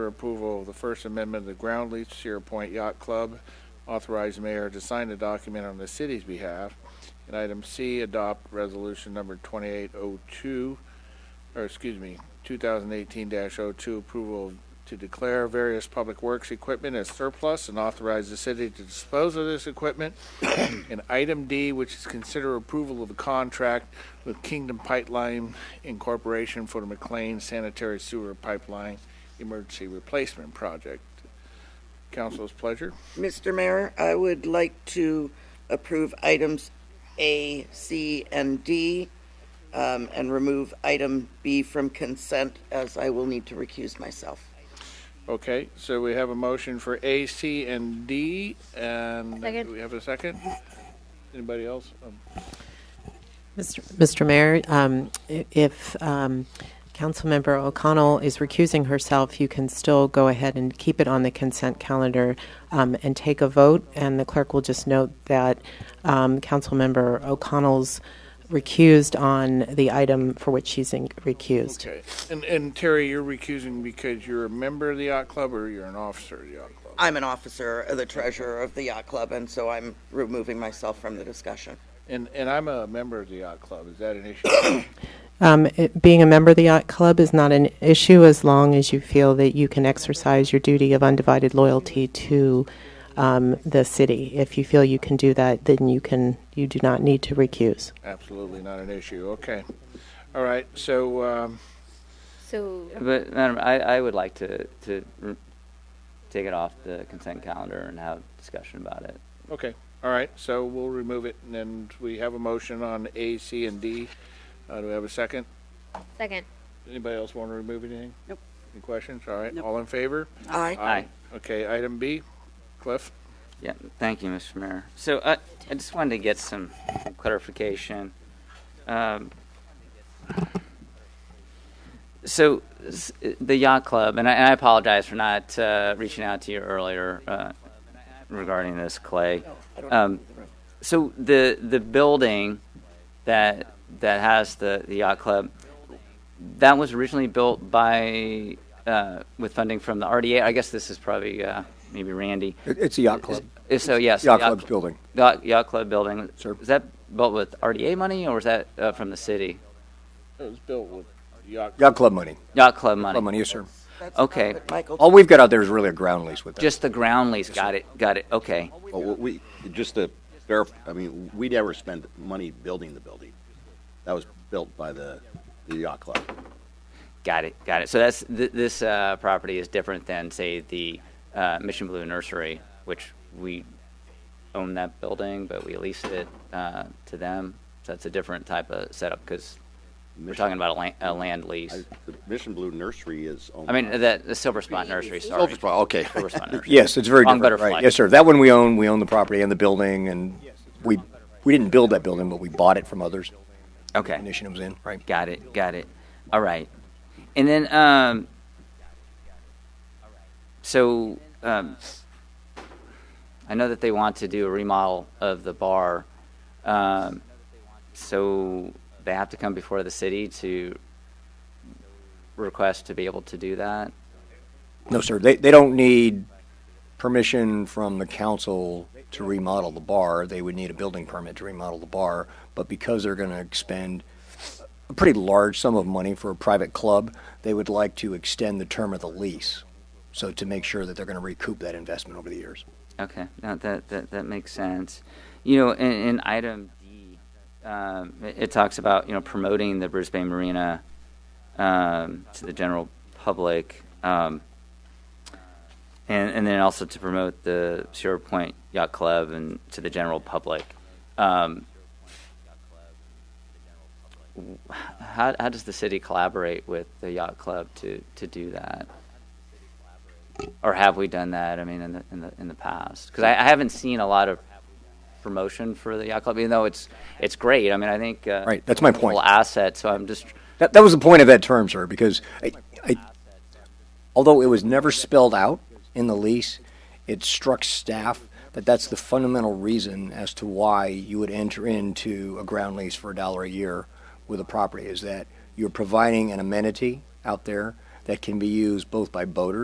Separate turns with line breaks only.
for approval of the First Amendment of the Ground Lease Sierra Point Yacht Club. Authorize mayor to sign the document on the city's behalf. And item C, adopt resolution number 2802, or excuse me, 2018-02, approval to declare various public works equipment as surplus and authorize the city to dispose of this equipment. And item D, which is consider approval of a contract with Kingdom Pipeline Incorporation for the McLean Sanitary Sewer Pipeline Emergency Replacement Project. Council's pleasure.
Mr. Mayor, I would like to approve items A, C, and D, um, and remove item B from consent, as I will need to recuse myself.
Okay, so we have a motion for A, C, and D, and
Second.
do we have a second? Anybody else? Um,
Mr. Mayor, um, i- if um, Councilmember O'Connell is recusing herself, you can still go ahead and keep it on the consent calendar um, and take a vote, and the clerk will just note that um, Councilmember O'Connell's recused on the item for which she's in- recused.
Okay, and, and Terry, you're recusing because you're a member of the yacht club or you're an officer of the yacht club?
I'm an officer, uh, the treasurer of the yacht club, and so I'm removing myself from the discussion.
And, and I'm a member of the yacht club, is that an issue?
Um, it- Being a member of the Yacht Club is not an issue as long as you feel that you can exercise your duty of undivided loyalty to um, the city. If you feel you can do that, then you can, you do not need to recuse.
Absolutely not an issue, okay. All right, so, um,
So,
But Madam, I, I would like to, to r- take it off the consent calendar and have a discussion about it.
okay, all right, so we'll remove it and then we have a motion on A, C, and D. Uh, do we have a second?
second.
Anybody else want to remove anything?
Nope.
Any questions? All right,
Nope.
all in favor?
Aye.
Aye.
Okay, item B, Cliff?
Yeah, thank you, Mr. Mayor. So I, I just wanted to get some clarification. Um, so s- the yacht club, and I, and I apologize for not uh, reaching out to you earlier uh, regarding this, Clay. Um, so the the building that that has the, the yacht club that was originally built by uh, with funding from the RDA. I guess this is probably uh, maybe Randy.
It- It's a yacht club.
Is- So yes,
Yacht club's building.
Yacht, yacht club building.
Sir.
Is that built with RDA money or is that uh, from the city?
It was built with yacht.
Yacht club money.
Yacht club money.
Club money, yes, sir.
That's
Okay.
not what Michael.
All we've got out there is really a ground lease with them.
Just the ground lease. Got it. Got it. Okay.
Well, what we, just to verify, I mean, we never spent money building the building. That was built by the, the yacht club.
Got it. Got it. So that's th- this uh, property is different than say the uh, Mission Blue Nursery, which we own that building, but we leased it uh, to them. So that's a different type of setup because we're talking about a land, a land lease.
I- The Mission Blue Nursery is owned.
I mean, the, the Silver Spot Nursery. Sorry.
Silver Spot, okay.
Silver Spot Nursery.
Yes, it's very
On
different,
Butterfly.
right? Yes, sir. That one we own, we own the property and the building, and we, we didn't build that building, but we bought it from others.
Okay.
Initiative was in, right?
Got it. Got it. All right. And then, um, so um, I know that they want to do a remodel of the bar. Um, so they have to come before the city to request to be able to do that.
No, sir. They, they don't need permission from the council to remodel the bar. They would need a building permit to remodel the bar. But because they're going to expend a pretty large sum of money for a private club, they would like to extend the term of the lease. So to make sure that they're going to recoup that investment over the years.
Okay, no, that, that, that makes sense. You know, in, in item D, um, it, it talks about, you know, promoting the Bruce Bay Marina um, to the general public. Um, and, and then also to promote the Sierra Point Yacht Club and to the general public. Um, w- how, how does the city collaborate with the yacht club to, to do that? or have we done that? I mean, in the in the in the past, because I, I haven't seen a lot of promotion for the yacht club, even though it's it's great. I mean, I think uh,
Right, that's my
it's a wonderful
point.
Asset. So I'm just
That, that was the point of that term, sir, because I, I, although it was never spelled out in the lease, it struck staff that that's the fundamental reason as to why you would enter into a ground lease for a dollar a year with a property is that you're providing an amenity out there that can be used both by boaters.